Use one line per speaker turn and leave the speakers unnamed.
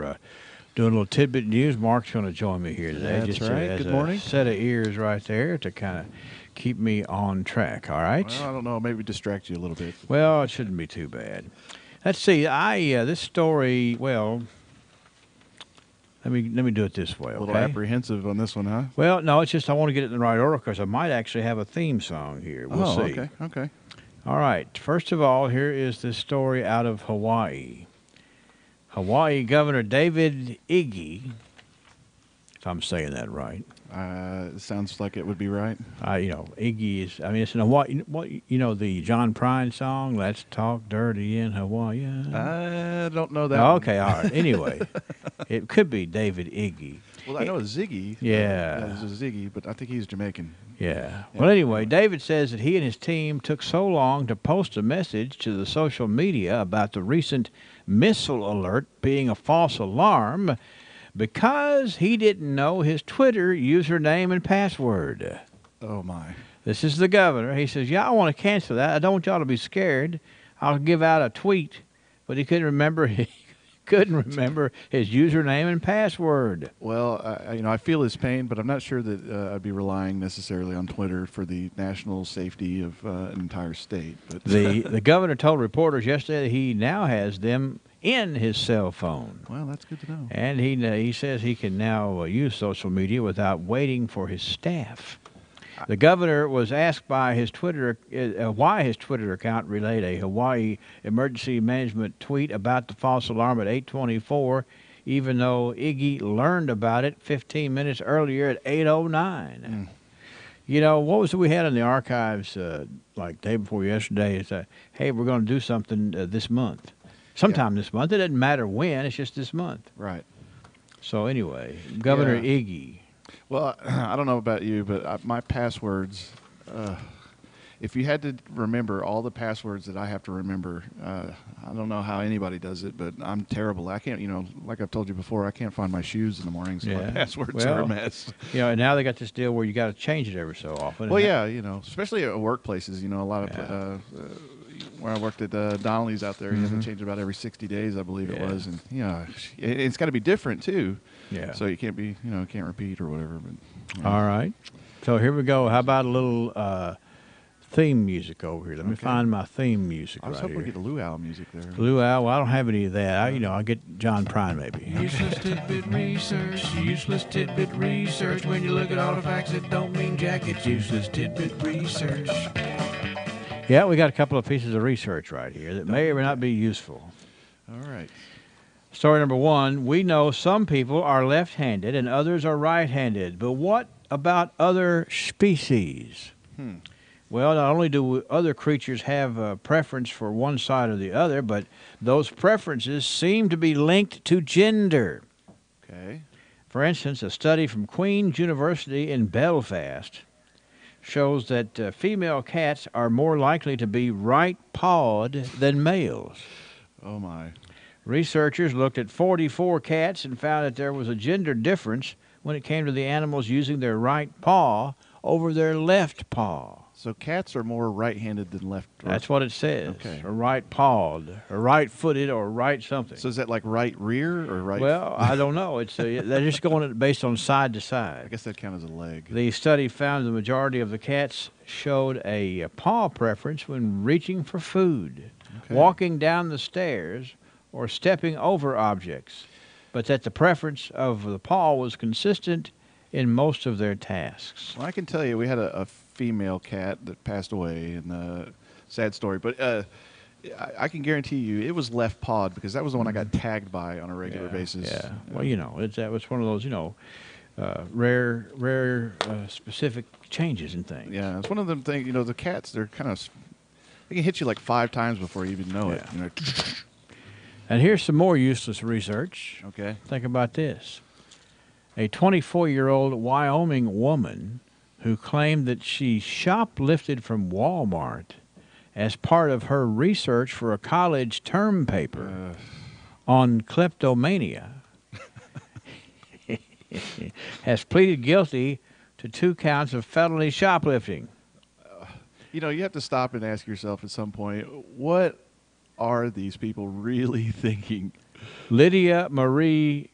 uh, Doing a little tidbit news. Mark's going to join me here today.
That's
just to-
right.
as
Good
a
morning.
Set of ears right there to kind of keep me on track. All right.
Well, I don't know. Maybe distract you a little bit.
Well, it shouldn't be too bad. Let's see. I uh, this story. Well, let me let me do it this way.
A
Okay.
little apprehensive on this one, huh?
well, no, it's just I want to get it in the right order because I might actually have a theme song here. We'll
oh,
see.
okay. Okay.
All right. First of all, here is this story out of Hawaii. Hawaii Governor David Iggy, if I'm saying that right.
Uh, sounds like it would be right.
I, you know, Iggy is. I mean, it's in Hawaii. What you know, the John Prine song, "Let's Talk Dirty in Hawaii."
I don't know that.
Oh,
Uh, one.
okay, all right. Anyway, it could be David Iggy.
Well, I know Ziggy.
Yeah.
There's a Ziggy, but I think he's Jamaican.
Yeah. Well, anyway, David says that he and his team took so long to post a message to the social media about the recent missile alert being a false alarm because he didn't know his Twitter username and password.
Oh my.
This is the governor. He says, Yeah, I want to cancel that. I don't want y'all to be scared. I'll give out a tweet. But he couldn't remember he couldn't remember his username and password.
Well, I, I- you know, I feel his pain, but I'm not sure that uh, I'd be relying necessarily on Twitter for the national safety of uh, an entire state. But
The the governor told reporters yesterday that he now has them in his cell phone,
well, that's good to know.
and he he says he can now uh, use social media without waiting for his staff. The governor was asked by his Twitter uh, uh, why his Twitter account relayed a Hawaii emergency management tweet about the false alarm at 8:24, even though Iggy learned about it 15 minutes earlier at 8:09. You know what was it we had in the archives uh, like day before yesterday? Is that hey, we're going to do something uh, this month, sometime this month. It doesn't matter when. It's just this month.
Right.
So anyway, Governor
Yeah.
Iggy.
Well, I don't know about you, but I, my passwords. Uh, if you had to remember all the passwords that I have to remember, uh, I don't know how anybody does it, but I'm terrible. I can't, you know, like I've told you before, I can't find my shoes in the morning, so my
Yeah.
passwords are
Well,
a mess.
You know, and now they got this deal where you got to change it every so often.
Well,
And
yeah, you know, especially at workplaces, you know, a lot of pla-
Yeah. Mm-hmm.
uh, uh, where I worked at uh, Donnelly's out there, you have to change about every 60 days, I believe it
Yeah.
was, and you know, it, it's got to be different too.
Yeah.
So you can't be, you know, can't repeat or whatever. But
that- All right. So here we go. How about a little uh, theme music over here? Let me
Okay.
find my theme music
I was
right
hoping
here.
we get a luau music there.
Luau. Well, I don't have any of that. I, you know, I get John Prine maybe.
Useless tidbit research, useless tidbit research. When you look at all the facts that don't mean jack, it's useless tidbit research.
Yeah, we got a couple of pieces of research right here that may or may not be useful.
All right.
Story number one We know some people are left handed and others are right handed, but what about other species? Well, not only do other creatures have a preference for one side or the other, but those preferences seem to be linked to gender.
Okay.
For instance, a study from Queen's University in Belfast shows that uh, female cats are more likely to be right pawed than males.
Oh my.
Researchers looked at 44 cats and found that there was a gender difference when it came to the animals using their right paw over their left paw.
So cats are more right-handed than left. or-
That's what it says.
Okay.
Or right pawed, or right footed, or right something.
So is that like right rear or right?
well, I don't know. It's uh they're just going it based on side to
I
side.
guess that counts as a leg.
The study found the majority of the cats showed a uh, paw preference when reaching for food.
Okay.
walking down the stairs, or stepping over objects, but that the preference of the paw was consistent in most of their tasks.
Well, I can tell you, we had a, a female cat that passed away, and uh, sad story. But uh, I, I can guarantee you, it was left pawed because that was the one I got tagged by on a regular
Mm-hmm. Yeah,
basis.
Yeah. Well, you know, it's that was one of those you know, uh, rare, rare uh, specific changes in things.
Yeah, it's one of them things. You know, the cats they're kind of they can hit you like five times before you even know it.
Yeah.
You know,
And here's some more useless research.
okay.
Think about this. A 24 year old Wyoming woman who claimed that she shoplifted from Walmart as part of her research for a college term paper on kleptomania has pleaded guilty to two counts of felony shoplifting.
You know, you have to stop and ask yourself at some point, what are these people really thinking?
Lydia Marie